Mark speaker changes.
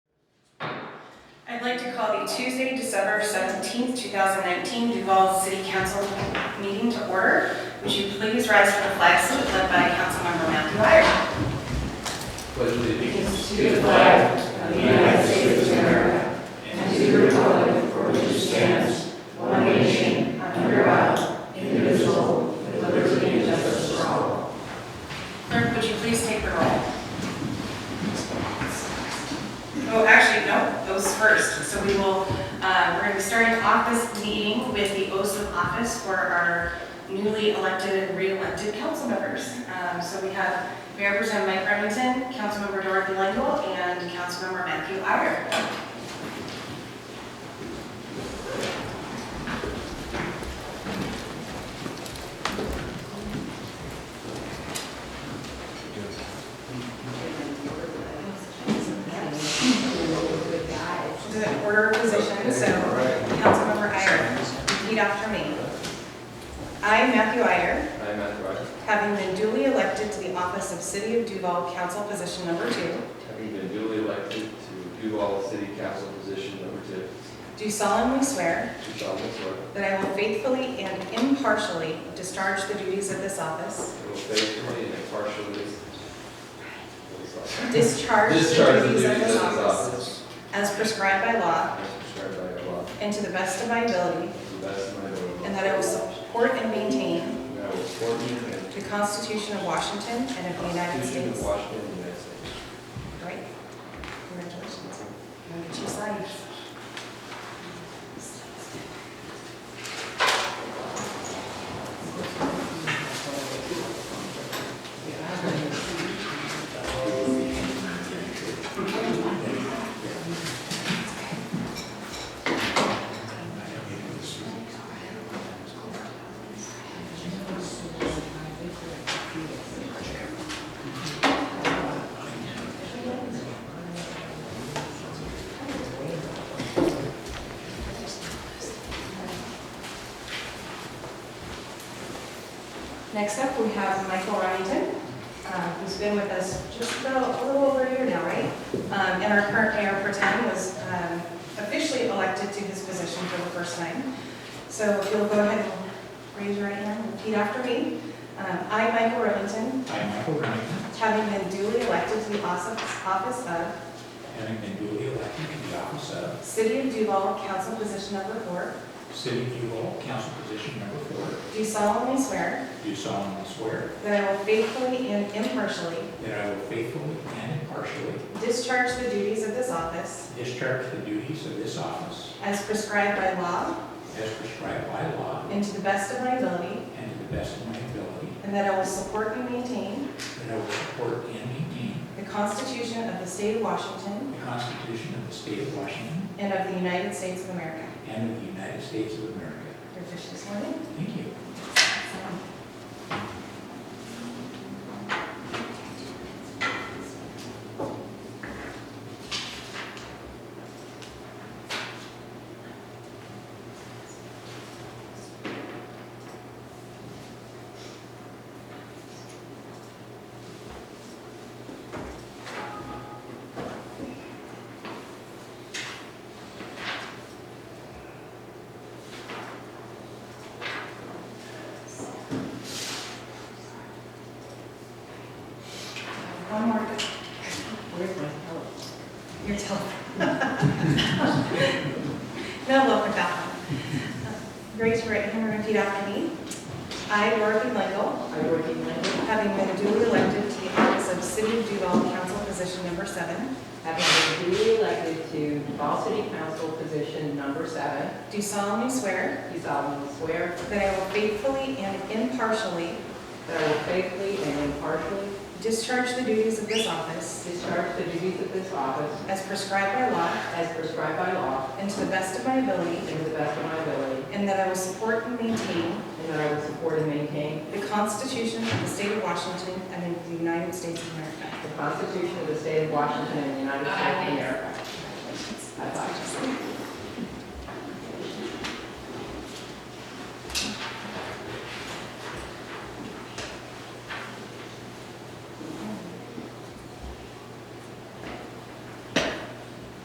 Speaker 1: I'd like to call the Tuesday, December 17th, 2019 Duval City Council meeting to order. Would you please rise for the flag salute led by Councilmember Matthew Iyer?
Speaker 2: Pledge allegiance
Speaker 3: to the flag of the United States of America and to the republic for which it stands, one nation, under God, indivisible, with liberty and justice for all.
Speaker 1: Clerk, would you please take the roll? Oh, actually, no, those first. So we will, uh, we're going to be starting off this meeting with the oaths of office for our newly elected and re-elected council members. Um, So we have Mayor Pro Tem Mike Remington, Councilmember Dorothy Lingle, and Councilmember Matthew Iyer. This is an order of position, so Councilmember Iyer, repeat after me. I, Matthew Iyer,
Speaker 2: I, Matthew Iyer,
Speaker 1: having been duly elected to the office of City of Duval Council Position Number Two,
Speaker 2: having been duly elected to Duval City Council position number two,
Speaker 1: do solemnly swear
Speaker 2: do solemnly swear
Speaker 1: that I will faithfully and impartially discharge the duties of this office,
Speaker 2: that I will faithfully and impartially
Speaker 1: discharge the
Speaker 2: discharge the
Speaker 1: duties of this office
Speaker 2: office
Speaker 1: as prescribed by law
Speaker 2: as prescribed by law
Speaker 1: and to the best of my ability,
Speaker 2: to the best of my ability.
Speaker 1: and that I will support and maintain
Speaker 2: And I will support and defend
Speaker 1: the Constitution of Washington and of the
Speaker 2: the
Speaker 1: United
Speaker 2: Constitution
Speaker 1: States.
Speaker 2: of Washington and the United States.
Speaker 1: Great. Congratulations. Now get you signed. Next up, we have Michael Remington, uh, who's been with us just about a little over a year now, right? Um, And our current mayor pro tem was um, officially elected to his position for the first time. So if you'll go ahead and raise your right hand and repeat after me. Um, I, Michael Remington,
Speaker 4: I, Michael Remington,
Speaker 1: having been duly elected to the office office of
Speaker 4: having been duly elected to the office of
Speaker 1: City of Duval Council Position Number Four,
Speaker 4: City of Duval, council position number four,
Speaker 1: do solemnly swear
Speaker 4: do solemnly swear
Speaker 1: that I will faithfully and impartially
Speaker 4: that I will faithfully and impartially
Speaker 1: discharge the duties of this office
Speaker 4: discharge the duties of this office
Speaker 1: As prescribed by law
Speaker 4: as prescribed by law
Speaker 1: and to the best of my ability.
Speaker 4: and to the best of my ability,
Speaker 1: And that I will support and maintain
Speaker 4: that I will support and maintain
Speaker 1: the Constitution of the State of Washington
Speaker 4: the Constitution of the State of Washington
Speaker 1: and of the United States of America.
Speaker 4: and of the United States of America.
Speaker 1: Your official sworn in.
Speaker 4: Thank you.
Speaker 1: One more. Where's my help? Your telephone. No luck with that one. Raise your right hand and repeat after me. I, Dorothy Lingle,
Speaker 3: I, Dorothy Lincoln,
Speaker 1: having been duly elected to the office of City of Duval Council Position Number Seven,
Speaker 3: having been duly elected to Duval City Council position number seven,
Speaker 1: do solemnly swear
Speaker 3: do solemnly swear
Speaker 1: That I will faithfully and impartially
Speaker 3: that I will faithfully and impartially
Speaker 1: discharge the duties of this office
Speaker 3: discharge the duties of this office
Speaker 1: as prescribed by law
Speaker 3: as prescribed by law
Speaker 1: and to the best of my
Speaker 3: and
Speaker 1: ability,
Speaker 3: to the best of my ability,
Speaker 1: and that I will support and maintain
Speaker 3: and that I will support and maintain
Speaker 1: the Constitution of the State of Washington and of the United States of America.
Speaker 3: the Constitution of the State of Washington and the United States of America.